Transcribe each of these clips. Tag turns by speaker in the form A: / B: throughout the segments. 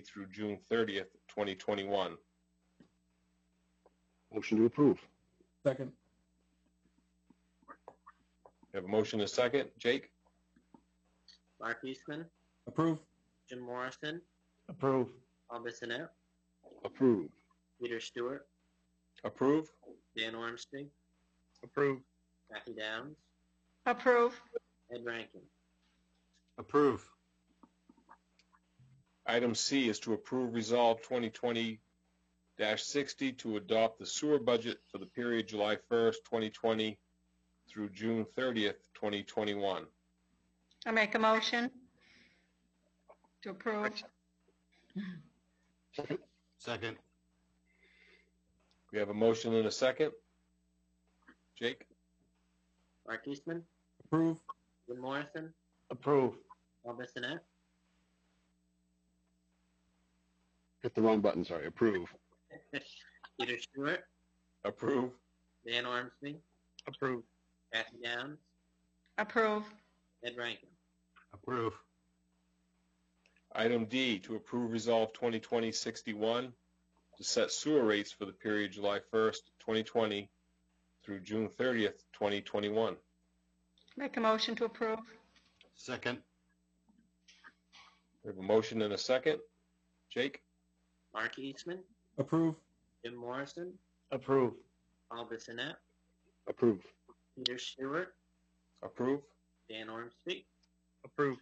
A: through June 30th, 2021.
B: Motion to approve.
C: Second.
A: We have a motion and a second. Jake?
D: Mark Eastman,
C: Approve.
D: Jim Morrison,
B: Approve.
D: Paul Bissonnette,
B: Approve.
D: Peter Stewart,
A: Approve?
D: Dan Ormsby,
B: Approve.
D: Kathy Downs,
E: Approve.
D: Ed Rankin.
F: Approve.
A: Item C is to approve Resolve 2020-60 to adopt the sewer budget for the period July 1st, 2020 through June 30th, 2021.
E: I make a motion to approve.
F: Second.
A: We have a motion and a second. Jake?
D: Mark Eastman,
C: Approve.
D: Jim Morrison,
B: Approve.
D: Paul Bissonnette,
B: Hit the wrong button, sorry. Approve.
D: Peter Stewart,
A: Approve?
D: Dan Ormsby,
B: Approve.
D: Kathy Downs,
E: Approve.
D: Ed Rankin.
F: Approve.
A: Item D, to approve Resolve 2020-61 to set sewer rates for the period July 1st, 2020 through June 30th, 2021.
E: Make a motion to approve.
F: Second.
A: We have a motion and a second. Jake?
D: Mark Eastman,
C: Approve.
D: Jim Morrison,
B: Approve.
D: Paul Bissonnette,
B: Approve.
D: Peter Stewart,
A: Approve?
D: Dan Ormsby,
B: Approve.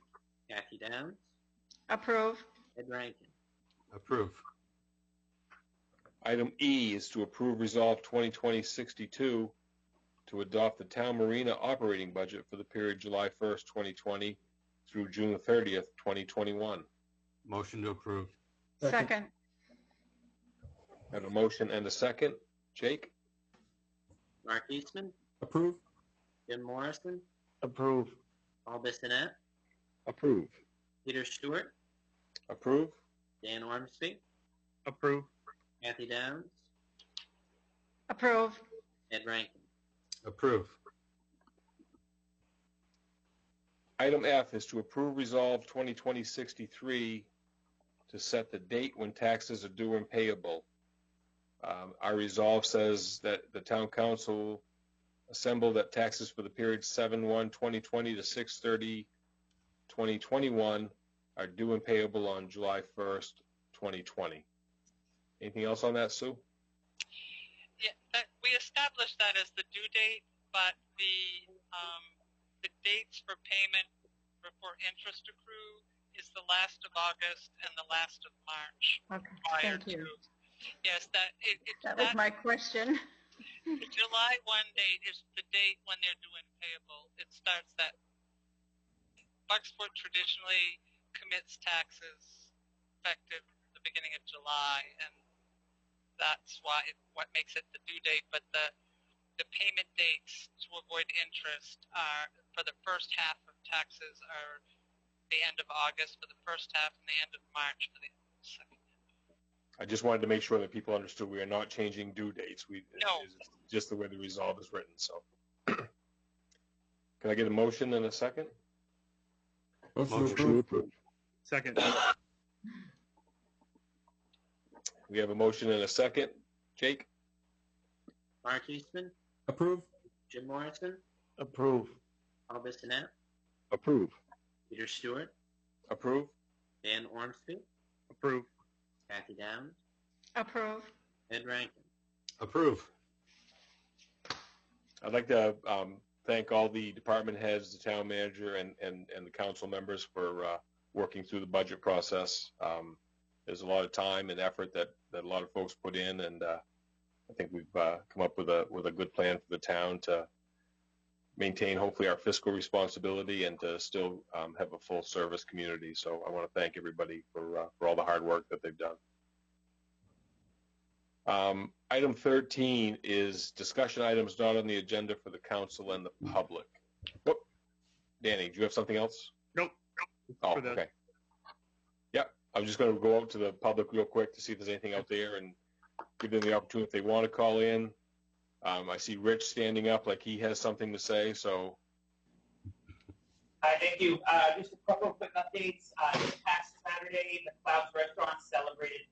D: Kathy Downs,
E: Approve.
D: Ed Rankin.
F: Approve.
A: Item E is to approve Resolve 2020-62 to adopt the town marina operating budget for the period July 1st, 2020 through June 30th, 2021.
F: Motion to approve.
E: Second.
A: I Have a motion and a second. Jake?
D: Mark Eastman,
C: Approve.
D: Jim Morrison,
B: Approve.
D: Paul Bissonnette,
B: Approve.
D: Peter Stewart,
A: Approve?
D: Dan Ormsby,
B: Approve.
D: Kathy Downs,
E: Approve.
D: Ed Rankin.
F: Approve.
A: Item F is to approve Resolve 2020-63 to set the date when taxes are due and payable. Um, Our resolve says that the town council assembled that taxes for the period 7/1/2020 to 6/30/2021 are due and payable on July 1st, 2020. Anything else on that, Sue?
G: Yeah, that, we established that as the due date, but the, um, the dates for payment for, for interest accrue is the last of August and the last of March
E: Okay,
G: prior
E: thank you.
G: to. Yes, that, it, it,
E: That was
G: that-
E: my question.
G: the July one date is the date when they're due and payable. It starts that. Bucksport traditionally commits taxes effective the beginning of July, and that's why it, what makes it the due date. But the the payment dates to avoid interest are for the first half of taxes are the end of August for the first half and the end of March for the second.
A: I just wanted to make sure that people understood we are not changing due dates. We,
G: No.
A: it's just the way the resolve is written, so. Can I get a motion and a second?
C: Motion to
F: Motion.
B: Motion to
C: approve.
B: approve.
F: Second.
A: We have a motion and a second. Jake?
D: Mark Eastman,
C: Approve.
D: Jim Morrison,
B: Approve.
D: Paul Bissonnette,
B: Approve.
D: Peter Stewart,
A: Approve?
D: Dan Ormsby,
B: Approve.
D: Kathy Downs,
E: Approve.
D: Ed Rankin.
F: Approve.
A: I'd like to um, thank all the department heads, the town manager, and, and, and the council members for uh, working through the budget process. Um, there's a lot of time and effort that, that a lot of folks put in, and uh, I think we've uh, come up with a with a good plan for the town to maintain hopefully our fiscal responsibility and to still um, have a full service community. So I want to thank everybody for uh, for all the hard work that they've done. Um, item 13 is discussion items not on the agenda for the council and the public. Whoop. Danny, do you have something else?
H: Nope.
A: Oh,
H: For the-
A: okay. Yep. I'm just going to go out to the public real quick to see if there's anything out there and give them the opportunity if they want to call in. Um, I see Rich standing up like he has something to say, so
H: Hi, thank you. Uh, Just a couple of quick updates. Uh, Tax map
G: Saturday, the Clouds Restaurant, seven